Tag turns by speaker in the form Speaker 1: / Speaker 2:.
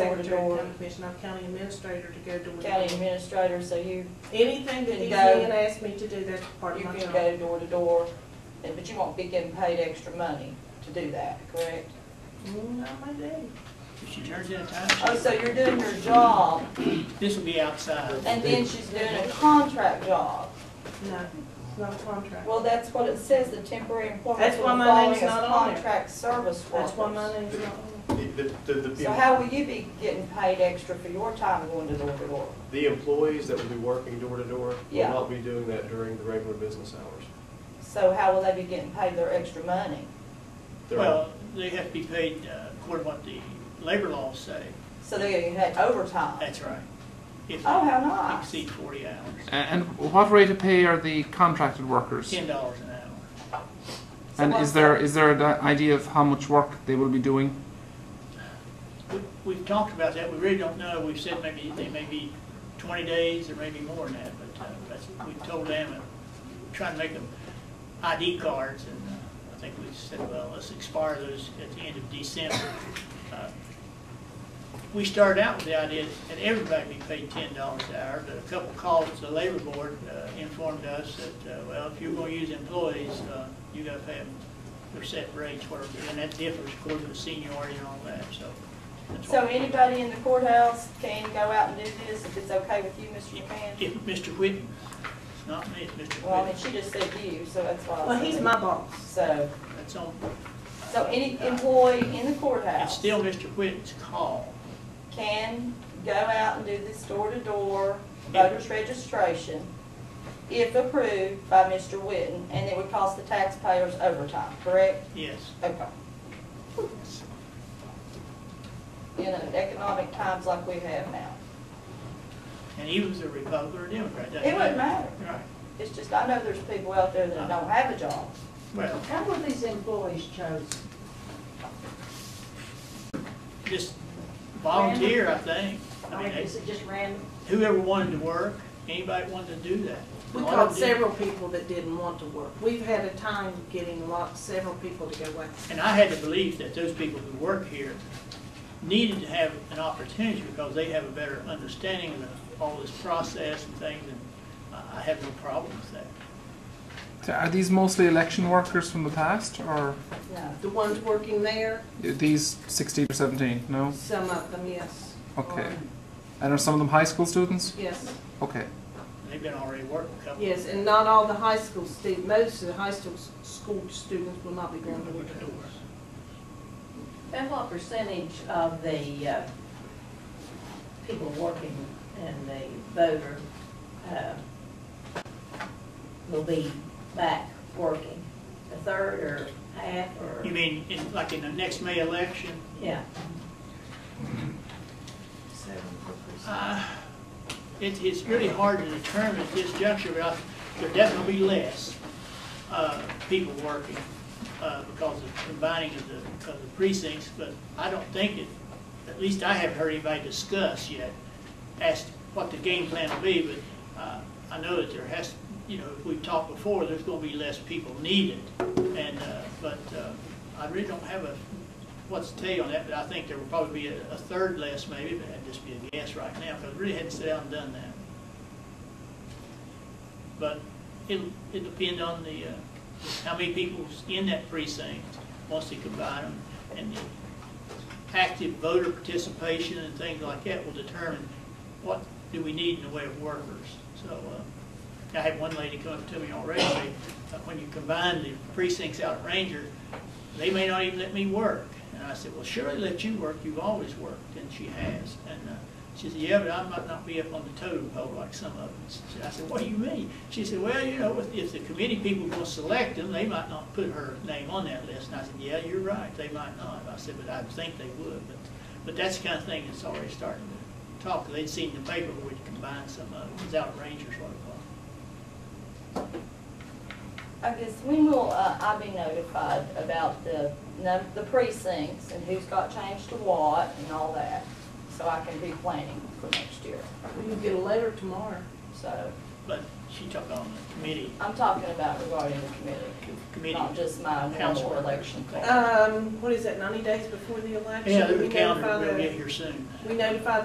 Speaker 1: Secretary of
Speaker 2: door.
Speaker 1: County Commission, I'm county administrator to go to.
Speaker 2: county administrator, so you,
Speaker 1: Anything that
Speaker 2: Can
Speaker 1: DCN
Speaker 2: go.
Speaker 1: asks me to do, that's part
Speaker 2: you
Speaker 1: of my job.
Speaker 2: can go door to door, and- but you won't be getting paid extra money to do that, correct?
Speaker 1: Mm, I might do.
Speaker 3: She turns in a
Speaker 2: Oh,
Speaker 3: time
Speaker 2: so you're doing your job,
Speaker 3: sheet. This will be outside.
Speaker 2: and then she's doing a contract job.
Speaker 1: No, it's not a contract.
Speaker 2: Well, that's what it says, the temporary employment
Speaker 1: That's
Speaker 2: will
Speaker 1: why my
Speaker 2: fall
Speaker 1: name's
Speaker 2: as
Speaker 1: not on there.
Speaker 2: contract service workers.
Speaker 1: That's why my name's not on
Speaker 4: The, the- the-
Speaker 2: So
Speaker 4: the,
Speaker 2: how will you be getting paid extra for your time going to door to door?
Speaker 4: the employees that will be working door to door will
Speaker 2: Yeah.
Speaker 4: not be doing that during the regular business hours.
Speaker 2: So how will they be getting paid their extra money?
Speaker 4: They're-
Speaker 3: Well, they have to be paid uh, according to what the labor laws say.
Speaker 2: So they're getting paid overtime?
Speaker 3: That's right. If
Speaker 2: Oh,
Speaker 3: they
Speaker 2: how nice.
Speaker 3: exceed forty hours,
Speaker 5: And what rate of pay are the contracted workers?
Speaker 3: ten dollars an hour.
Speaker 2: So
Speaker 5: And
Speaker 2: what's
Speaker 5: is there
Speaker 2: that?
Speaker 5: is there an idea of how much work they will be doing?
Speaker 3: We- We've talked about that. We really don't know. We've said maybe, they may be twenty days or maybe more than that, but uh, that's, we told them and trying to make them ID cards and uh, I think we said, well, let's expire those at the end of December. Uh, We started out with the idea that everybody be paid ten dollars an hour, but a couple calls to the labor board uh, informed us that, uh, well, if you're gonna use employees, uh, you gotta pay them their set rates, whatever, and that differs according to seniority and all that, so. that's
Speaker 2: So
Speaker 3: why-
Speaker 2: anybody in the courthouse can go out and do this if it's okay with you, Mr. McMahon?
Speaker 3: If Mr. Whitten, it's not me, it's Mr.
Speaker 2: Well, I mean,
Speaker 3: Whitten,
Speaker 2: she just said you, so that's why. I
Speaker 1: there. Well,
Speaker 2: said
Speaker 1: he's
Speaker 2: it.
Speaker 1: my boss.
Speaker 2: So,
Speaker 3: that's on,
Speaker 2: so any employee in the
Speaker 3: it's
Speaker 2: courthouse
Speaker 3: still Mr. Whitten's call.
Speaker 2: can go out and do this door-to-door voters registration if approved by Mr. Witten, and it would cost the taxpayers overtime, correct?
Speaker 3: Yes,
Speaker 2: Okay. In an economic times like we have now.
Speaker 3: and he was a Republican or a Democrat. doesn't
Speaker 2: It wouldn't matter.
Speaker 3: Right,
Speaker 2: It's just, I know there's people out there that don't have a job.
Speaker 3: well,
Speaker 6: How were these employees chosen?
Speaker 3: just volunteer, I think. I
Speaker 6: I mean,
Speaker 3: mean,
Speaker 6: is it just random?
Speaker 3: whoever wanted to work, anybody wanted to do that.
Speaker 1: We
Speaker 3: All I
Speaker 1: called
Speaker 3: did-
Speaker 1: several people that didn't want to work. We've had a time getting lots, several people to go out.
Speaker 3: And I had the belief that those people who work here needed to have an opportunity because they have a better understanding of the- all this process and things, and I I have no problem with that.
Speaker 5: So Are these mostly election workers from the past, or
Speaker 2: No.
Speaker 1: The ones working there,
Speaker 5: these sixteen or seventeen? No.
Speaker 1: some of them, yes.
Speaker 5: Okay.
Speaker 1: are-
Speaker 5: And are some of them high school students?
Speaker 1: Yes,
Speaker 5: Okay.
Speaker 3: They've been already working a couple.
Speaker 1: yes, and not all the high school students, most of the high school s- school students will not be going to work.
Speaker 7: And what percentage of the uh, people working in the voter uh, will be back working? A third or half or,
Speaker 3: You mean, in- like in the next May election?
Speaker 7: yeah,
Speaker 3: Uh, It, it's really hard to determine at this juncture, but I- there definitely be less, uh, people working, uh, because of combining of the, of the precincts, but I don't think it, at least I haven't heard anybody discuss yet, as to what the game plan will be, but, uh, I know that there has, you know, if we've talked before, there's gonna be less people needed, and, uh, but, uh, I really don't have a, what's the tell you on that, but I think there will probably be a, a third less maybe, but that'd just be a guess right now, because we really hadn't sat down and done that. But it'll, it'll depend on the, uh, how many people's in that precinct, once they combine them, and the active voter participation and things like that will determine what do we need in the way of workers. So, uh, I had one lady come up to me already, say, uh, when you combine the precincts out at Ranger, they may not even let me work. And I said, well, surely let you work, you've always worked, and she has. And uh, she said, yeah, but I might not be up on the totem pole like some of us. I said, what do you mean? She said, well, you know, if- if the committee people will select them, they might not put her name on that list. And I said, yeah, you're right, they might not. I said, but I think they would, but, but that's the kind of thing that's already starting to talk. They'd seen the paper where we'd combined some of it, it was out at Rangers, what it was.
Speaker 2: I guess when will uh, I be notified about the, num- the precincts and who's got changed to what and all that? So I can be planning for next year,
Speaker 1: You get a letter tomorrow.
Speaker 2: so.
Speaker 3: but she took on the committee,
Speaker 2: I'm talking about regarding the committee,
Speaker 3: committee.
Speaker 2: not just my Oh,
Speaker 3: Council.
Speaker 2: normal election call.
Speaker 1: Um, what is that, ninety days before the election?
Speaker 3: Yeah, there's
Speaker 1: We
Speaker 3: a calendar,
Speaker 1: notify
Speaker 3: we'll
Speaker 1: the-
Speaker 3: get here soon.
Speaker 1: We notify